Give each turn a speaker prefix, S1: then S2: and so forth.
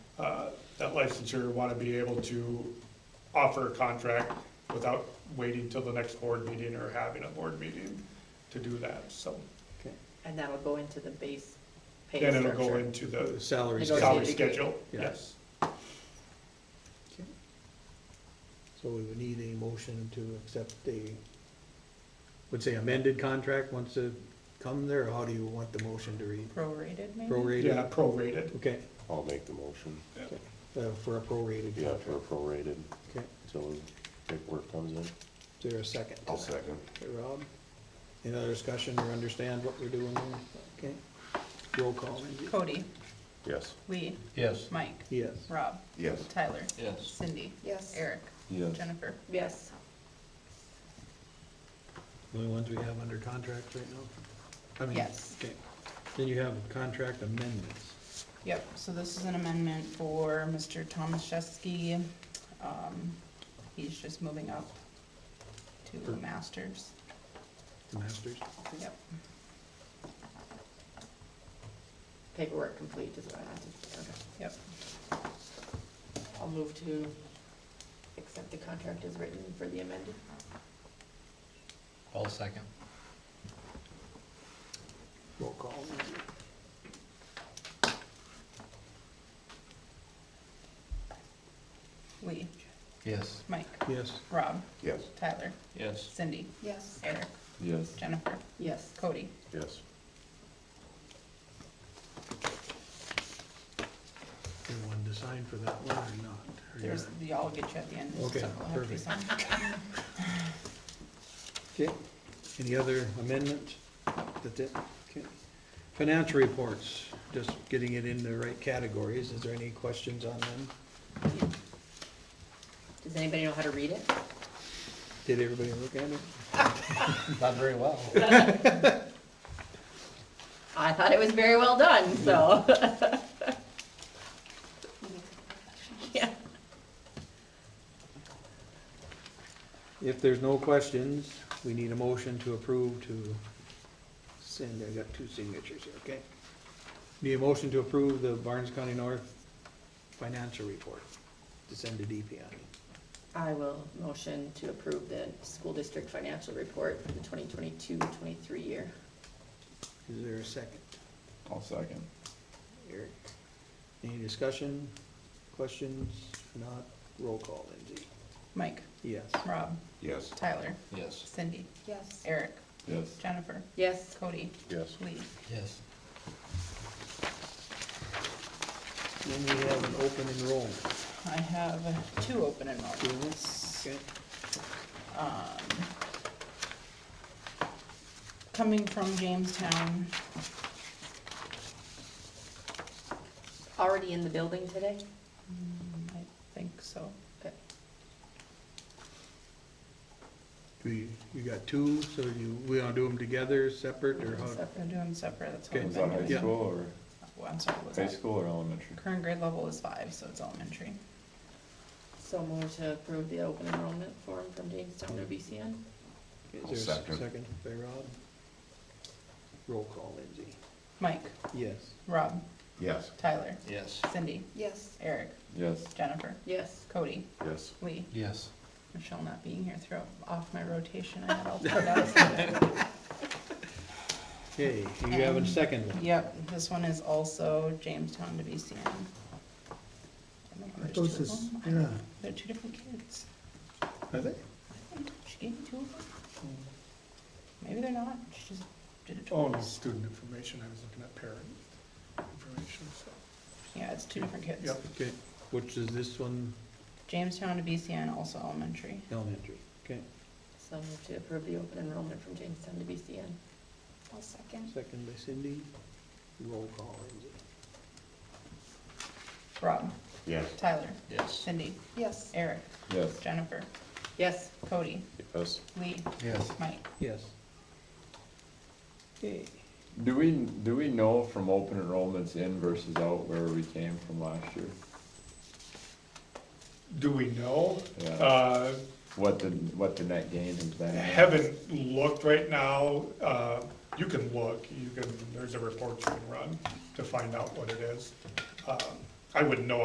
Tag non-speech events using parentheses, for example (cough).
S1: uh, that licensure, want to be able to offer a contract without waiting till the next board meeting or having a board meeting to do that, so.
S2: Okay.
S3: And that'll go into the base pay
S1: Then
S3: structure.
S1: it'll go into
S2: The
S1: the
S2: Salary.
S3: Negotiate
S1: salary
S3: degree.
S1: schedule,
S2: Yeah.
S1: yes.
S2: Okay. So we would need a motion to accept a, would say amended contract once it come there, or how do you want the motion to read?
S3: Prorated, maybe?
S1: Yeah,
S2: Prorated?
S1: prorated.
S2: Okay,
S4: I'll make the motion,
S2: okay, uh, for a prorated
S4: yeah, for
S2: contract.
S4: prorated,
S2: Okay,
S4: until the paperwork comes in.
S2: is there a second? to that?
S4: second.
S2: Okay, Rob, any other discussion or understand what we're doing there? Okay, roll call, Lindsay.
S5: Cody,
S4: Yes.
S5: Lee,
S6: Yes.
S5: Mike,
S2: Yes,
S5: Rob,
S4: Yes.
S5: Tyler,
S6: Yes.
S5: Cindy,
S3: Yes.
S5: Eric,
S4: Yes.
S5: Jennifer.
S3: Yes,
S2: the only ones we have under contract right now? I mean,
S5: Yes.
S2: Okay, then you have contract amendments.
S5: Yep, so this is an amendment for Mr. Thomas Shesky. Um, he's just moving up to
S2: For-
S5: masters.
S2: The Masters?
S5: Yep.
S3: paperwork complete is what I have to, okay.
S5: Yep.
S3: I'll move to accept the contract as written for the amended.
S6: All second.
S2: Roll call.
S5: Lee,
S6: Yes.
S5: Mike,
S2: Yes.
S5: Rob,
S4: Yes.
S5: Tyler,
S6: Yes.
S5: Cindy,
S3: Yes.
S5: Eric,
S4: Yes.
S5: Jennifer,
S3: Yes,
S5: Cody.
S4: Yes.
S2: Everyone to sign for that one or not? Or you're
S5: There's,
S2: not?
S5: y'all will get you at the end.
S2: Okay,
S5: so we'll have to
S2: perfect.
S5: sign.
S2: Okay. Any other amendment? That's it? Okay. Financial reports, just getting it in the right categories. Is there any questions on them?
S3: does anybody know how to read it?
S2: Did everybody look at it?
S6: Not very well.
S3: I thought it was very well done, so. (laughs) Yeah.
S2: If there's no questions, we need a motion to approve to send, I got two signatures here, okay? Need a motion to approve the Barnes County North financial report to send to DPI.
S3: I will motion to approve the school district financial report for the 2022-23 year.
S2: Is there a second?
S4: I'll second.
S2: Eric? Any discussion, questions? If Not, roll call, Lindsay.
S5: Mike,
S2: Yes.
S5: Rob,
S4: Yes.
S5: Tyler,
S6: Yes.
S5: Cindy,
S3: Yes.
S5: Eric,
S4: Yes.
S5: Jennifer,
S3: Yes,
S5: Cody,
S4: Yes.
S5: Lee.
S6: Yes.
S2: Then we have an open enrollment.
S5: I have two open enrollments.
S2: Okay.
S5: Um, Coming from Jamestown,
S3: already in the building today?
S5: mm, I think so.
S3: Okay.
S2: Do you, you got two, so you, we gonna do them together, separate, or how?
S5: We're doing separate, that's
S2: Okay.
S5: what we've
S7: Is that
S5: been
S7: high
S5: doing.
S2: Yeah.
S7: school or,
S5: Well, I'm sorry, was
S7: high
S5: that,
S7: school or elementary?
S5: current grade level is five, so it's elementary.
S3: So move to approve the open enrollment form from Jamestown to BCN?
S2: Is there a
S4: Second.
S2: second by Rob? Roll call, Lindsay.
S5: Mike,
S2: Yes.
S5: Rob,
S4: Yes.
S5: Tyler,
S6: Yes.
S5: Cindy,
S3: Yes.
S5: Eric,
S7: Yes,
S5: Jennifer,
S3: Yes.
S5: Cody,
S4: Yes.
S5: Lee.
S6: Yes.
S5: Michelle not being here throw off my rotation, I had all four guys.
S7: (laughs)
S2: Okay, do you have a second one?
S5: Yep, this one is also Jamestown to BCN. I don't know, there's two
S2: Those
S5: of
S2: is-
S5: them. I don't know.
S2: yeah.
S5: They're two different kids. She gave me two of them. Maybe they're not, she just did it
S1: Oh, no,
S5: twice.
S1: student information, I was looking at parent information, so.
S5: Yeah, it's two different kids.
S1: Yep.
S2: Okay, which is this one
S5: Jamestown to BCN, also elementary.
S2: elementary? Okay,
S3: So move to approve the open enrollment from Jamestown to BCN. I'll second.
S2: second by Cindy. Roll call, Lindsay.
S5: Rob,
S4: Yes.
S5: Tyler,
S6: Yes.
S5: Cindy,
S3: Yes.
S5: Eric,
S7: yes.
S5: Jennifer,
S3: Yes.
S5: Cody,
S4: Yes.
S5: Lee,
S6: Yes.
S5: Mike.
S2: Yes. Okay,
S7: Do we, do we know from open enrollments in versus out where we came from last year?
S1: Do we know?
S7: Yeah,
S1: Uh,
S7: what the, what the net gain has been?
S1: haven't looked right now, uh, you can look, you can, there's a report you can run to find out what it is. Um, Uh, I wouldn't know